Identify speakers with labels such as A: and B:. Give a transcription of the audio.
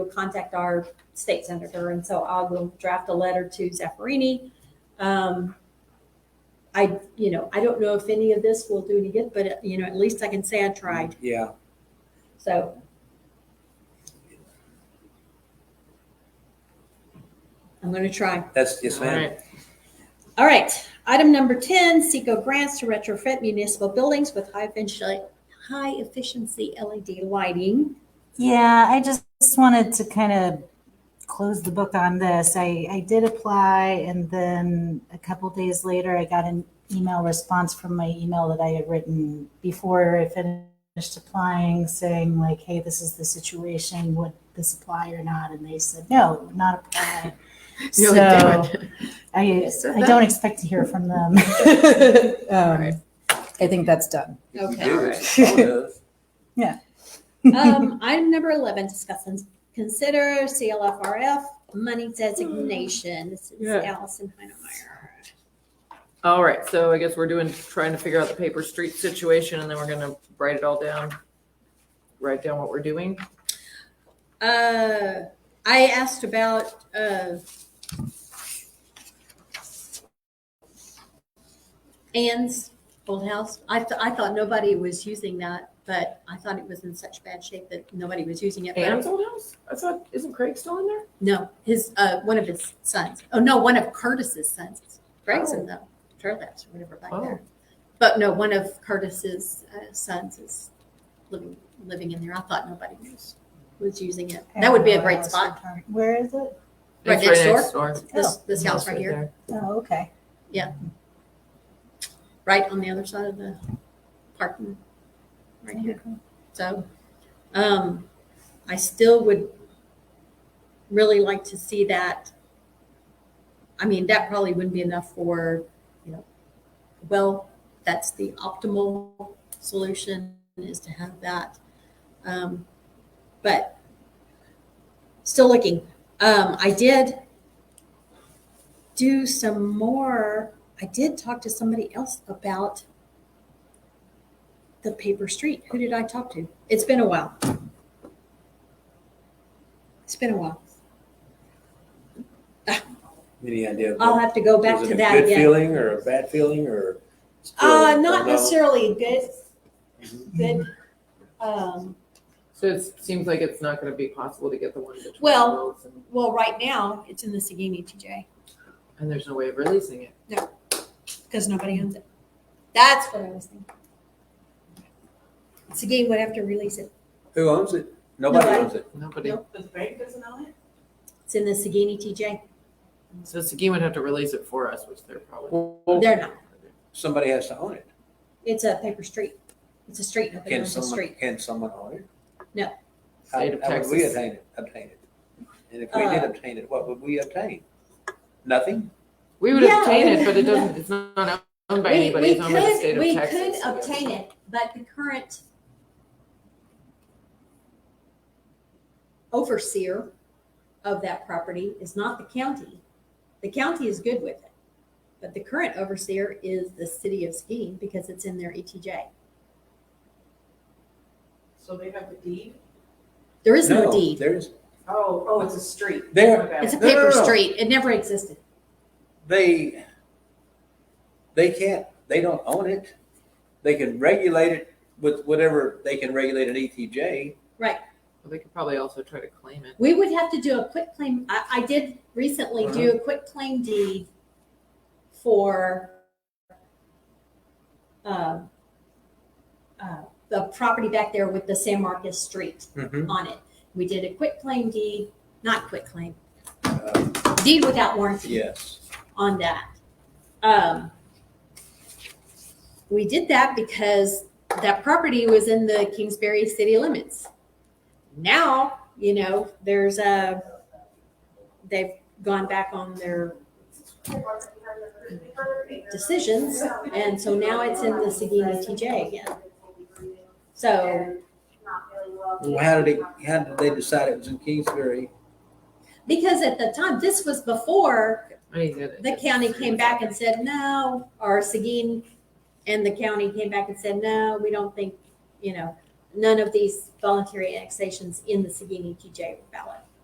A: will contact our state senator, and so I will draft a letter to Zaffarini. Um, I, you know, I don't know if any of this will do any good, but, uh, you know, at least I can say I tried,
B: Yeah,
A: so. I'm gonna try.
B: that's, yes,
C: All
B: ma'am.
C: right.
A: All right, item number 10, Seco grants to retrofit municipal buildings with high efficiency, high efficiency LED lighting.
D: Yeah, I just wanted to kind of close the book on this. I, I did apply, and then a couple days later, I got an email response from my email that I had written before I finished applying saying, like, hey, this is the situation. Would this apply or not? And they said, no, it would not apply.
C: No,
D: so
C: it
D: I,
C: said
D: I
C: that.
D: don't expect to hear from them. um,
C: right.
D: I think that's done.
B: If you
A: Okay.
B: do, it's all good.
A: Um, item number 11, discuss and consider CLFRF money designation. This is
C: Yeah.
A: Allison Heinemeyer.
C: All right, so I guess we're doing, trying to figure out the paper street situation and then we're gonna write it all down. Write down what we're doing.
A: Uh, I asked about, uh, Ann's old house. I, th- I thought nobody was using that, but I thought it was in such bad shape that nobody was using it. but-
C: Ann's old house? I thought, isn't Craig still in there?
A: No, his, uh, one of his sons. Oh, no, one of Curtis's sons. Greg's in the Turlaps or whatever back
C: Oh.
A: there. But no, one of Curtis's uh, sons is living, living in there. I thought nobody was, was using it. That would be a great spot.
D: Where is it?
A: Right
C: It's
A: next
C: door.
A: This, this house right here,
C: there.
D: Oh, okay.
A: right on the other side of the parking, right here. So, um, I still would really like to see that. I mean, that probably wouldn't be enough for, you know, well, that's the optimal solution is to have that. Um, but still looking. Um, I did do some more. I did talk to somebody else about the paper street. Who did I talk to? It's been a while. It's been a while.
B: Any idea?
A: I'll have to go back
B: Was
A: to
B: it a
A: that
B: Good
A: again.
B: feeling or a bad feeling or? still
A: Uh,
B: don't
A: not
B: know?
A: necessarily good,
B: Mhm.
A: good. Um,
C: So it seems like it's not gonna be possible to get the one between.
A: Well-
C: Wills and-
A: well, right now it's in the E Sagini TJ
C: And there's no way of releasing it.
A: because nobody owns it. That's what I was thinking. Sagini would have to release it.
B: Who owns it? Nobody
A: Nobody.
B: owns it.
C: Nobody,
A: Nope.
E: The bank doesn't own it?
A: It's in the E Sagini TJ.
C: so Seguin would have to release it for us, which they're probably.
A: They're not.
B: Somebody has to own it.
A: It's a paper street. It's a street. Nobody
B: Can
A: owns the
B: someone,
A: street.
B: can someone own it?
A: No.
B: How
C: State of
B: how would we
C: Texas.
B: obtain it, obtain it? And if we did
A: Uh,
B: obtain it, what would we obtain? Nothing?
C: We would
A: Yeah.
C: obtain it, but it doesn't, it's not owned by
A: We-
C: anybody,
A: we
C: it's owned by the
A: could-
C: state of Texas.
A: We could obtain it, but the current overseer of that property is not the county. The county is good with it, but the current overseer is the city of Skeen because it's in their E ETJ.
E: So they have the deed?
A: There is no deed.
B: There's,
E: Oh, oh, it's a street.
B: There-
E: Okay.
A: It's a
B: No, no,
A: paper
B: no, no.
A: street. It never existed.
B: they, they can't, they don't own it. They can regulate it with whatever they can regulate an E ETJ.
C: Well, They could probably also try to claim it.
A: We would have to do a quick claim. I, I did recently do a quick claim deed for um, uh, the property back there with the San Marcos Street on it. We did a quick claim deed, not quick claim,
B: Uh,
A: deed without warranty
B: Yes.
A: on that. Um, we did that because that property was in the Kingsbury city limits. Now, you know, there's a, they've gone back on their decisions, and so now it's in the Sagini TJ again. So
B: Well, how did they, how did they decide it was in Kingsbury?
A: because at the time, this was before
C: I mean, it-
A: the county came back and said no, or Seguin and the county came back and said, no, we don't think, you know, none of these voluntary annexations in the Seguin ETJ were valid.